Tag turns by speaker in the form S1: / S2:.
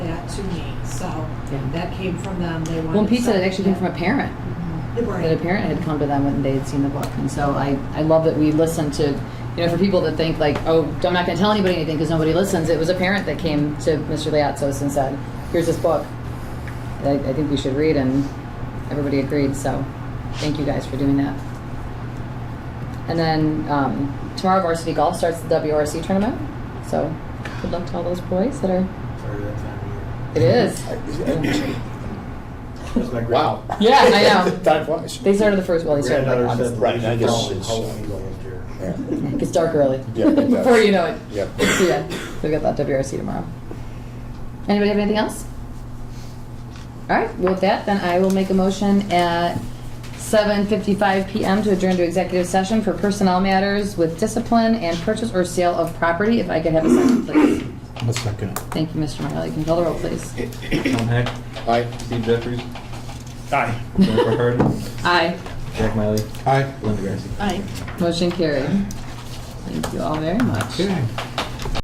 S1: So
S2: Yeah.
S1: that came from them. They wanted
S2: One piece that
S1: something
S2: actually came from a parent,
S1: that-
S2: that a
S1: Right.
S2: parent had come to them and they had seen the book. And so I, I love that we listen to, you know, for people that think like, oh, I'm not going to tell anybody anything because nobody listens. It was a parent that came to Mr. Liatzos and said, here's this book that I, I think we should read. And everybody agreed. So thank you guys for doing that. And then um, tomorrow varsity golf starts the WRC tournament. So good luck to all those boys that are,
S3: Sorry, that time of
S2: it is.
S3: year. That's my
S4: Wow.
S2: Yeah, I know.
S4: Time flies.
S2: They started the first, well, they started like
S3: Granddaughter
S2: August.
S3: said,
S4: Right,
S3: right,
S4: I
S3: I
S4: guess
S3: guess
S4: it's-
S3: Halloween last year.
S4: Yeah.
S2: It gets dark early.
S4: Yeah, it does.
S2: Before you know it.
S4: Yep.
S2: So yeah, we got that WRC tomorrow. Anybody have anything else? All right, well, with that, then I will make a motion at 7:55 PM to adjourn to executive session for personnel matters with discipline and purchase or sale of property. If I could have a second, please.
S5: A second.
S2: Thank you, Mr. Marley. Can you call the roll, please?
S6: Tom Heck,
S4: Aye.
S6: Steve Jeffries,
S4: Aye.
S6: Jennifer Hurd,
S2: Aye.
S6: Jack Miley,
S5: Aye.
S6: Linda Grassi.
S2: Motion carried. Thank you all very much.
S5: Okay.